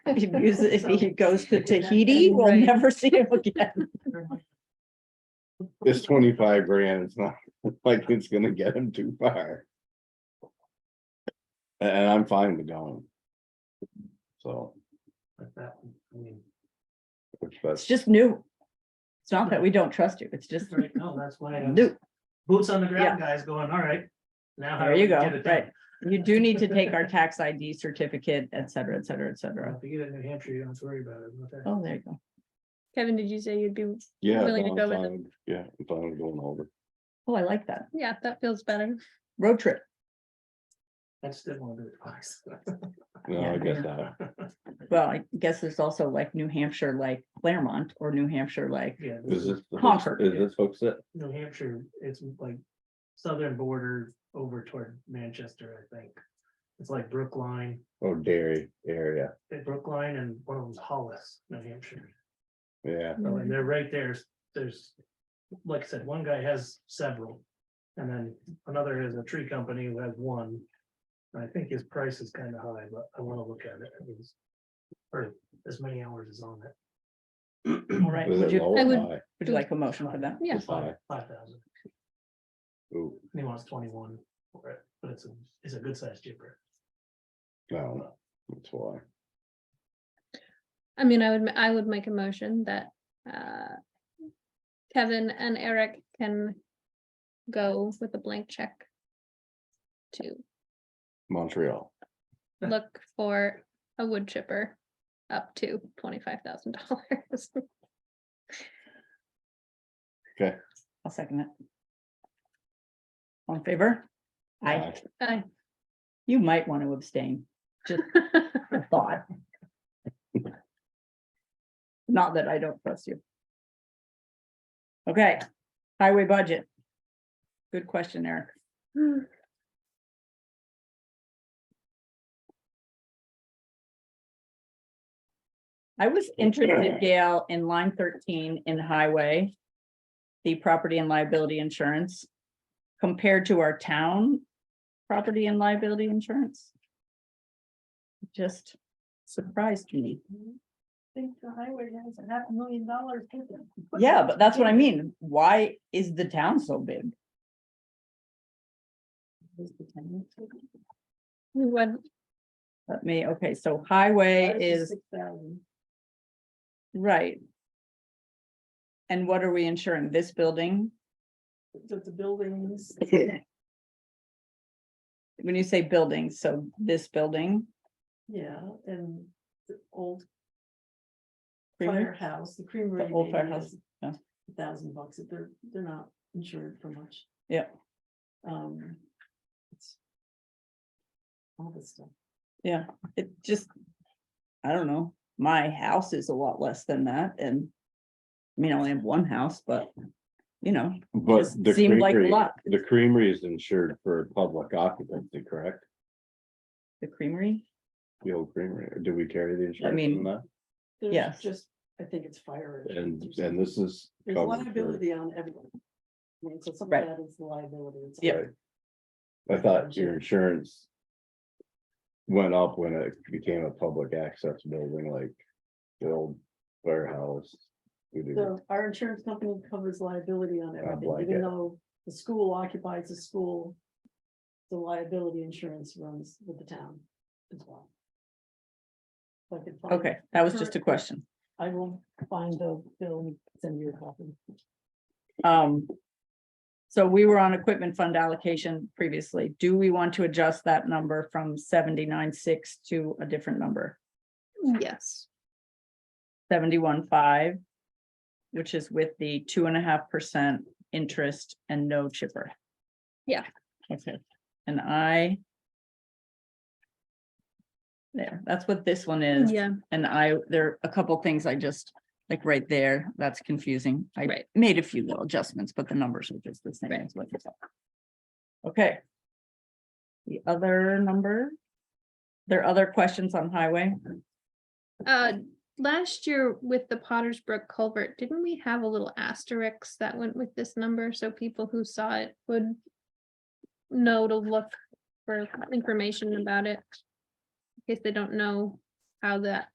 He uses, if he goes to Tahiti, we'll Right. never see him again. This twenty-five grand is not like it's gonna get him too far. A- And I'm fine with going. So, But that, I mean, if It's that's, just new. It's not that we don't trust you. It's just that's right, no, that's why, I was- new. boots on the ground guys going, all right. Now. how There do you we get go, it done?" right. You do need to take our tax ID certificate, et cetera, et cetera, et cetera. If you get it in New Hampshire, you don't have to worry about it. but that- Oh, there you go. Kevin, did you say you'd be, yeah, willing to no, go I'm with fine with- yeah, I'm fine with going over. Oh, I like that. yeah, that feels better. Road trip. I just didn't want to do it twice. No, Yeah. I guess not. Well, I guess there's also like New Hampshire, like Claremont or New Hampshire, like, Yeah, this Is is this, the hooks- Concord, is yeah. this folks it? New Hampshire, it's like southern border over toward Manchester, I think. It's like Brookline, Oh, dairy area, eh, Brookline and one of them's Hollis, New Hampshire. yeah, So, And they're right there, s- there's, like I said, one guy has several. And then another is a tree company who has one. And I think his price is kind of high, but I want to look at it. it. was- Or as many hours is on it. all right. is Would it you, low I or would- high? would you like a motion for that? Yeah. It's high. Five thousand, Ooh, and he wants twenty-one for it, but it's a, it's a good sized jipper. no, that's why, I mean, I would, ma- I would make a motion that uh, Kevin and Eric can go with a blank check to Montreal, look for a wood chipper up to twenty-five thousand dollars. I'll second it. All in favor? I, Aye. you might want to abstain. Just a thought. Not that I don't trust you. Okay, highway budget. Good question, Eric. I was interested, Gail, in line thirteen in highway. The property and liability insurance compared to our town property and liability insurance. Just surprised me. think the highway has a half a million dollars. in it. Yeah, but that's what I mean. Why is the town so big? When, Let me, okay, so highway Ours is, 6,000. right. And what are we insuring? This building? The, the buildings, When you say buildings, so this building? yeah, and the old Creamery? firehouse, the creamery. The old firehouse, yeah. A thousand bucks, if they're, they're not insured for much. Yeah. Um. it's All this stuff. Yeah, it just, I don't know, my house is a lot less than that and. I mean, I only have one house, but, you know, but Just the seemed like a creamery, lot. the creamery is insured for public occupancy, correct? the creamery, The old creamery, or do we carry the insurance? mean, on that? There's Yes. Just, I think it's fire. And, insurance. and this is. There's covered for- liability on everyone. I mean, so some Right. of that is the liability. it's Yep. all- I thought your insurance. Went up when it became a public access building like the old warehouse. We did So our insurance company covers liability on everything, like it. even though the school occupies the school. The liability insurance runs with the town as well. If I could find- okay, that was just a question. I will find the bill and send you a copy. Um. So we were on equipment fund allocation previously. Do we want to adjust that number from seventy-nine, six to a different number? yes, Seventy-one, five. Which is with the two and a half percent interest and no chipper. Yeah. Okay, and I. There, that's what this one is. yeah, And I, there are a couple things I just, like right there, that's confusing. I Right. made a few little adjustments, but the numbers are just the same. Right. as what you said. Okay. The other number? There are other questions on highway? uh, last year with the Potter's Brook culvert, didn't we have a little asterisk that went with this number, so people who saw it would know to look for information about it? In case they don't know how that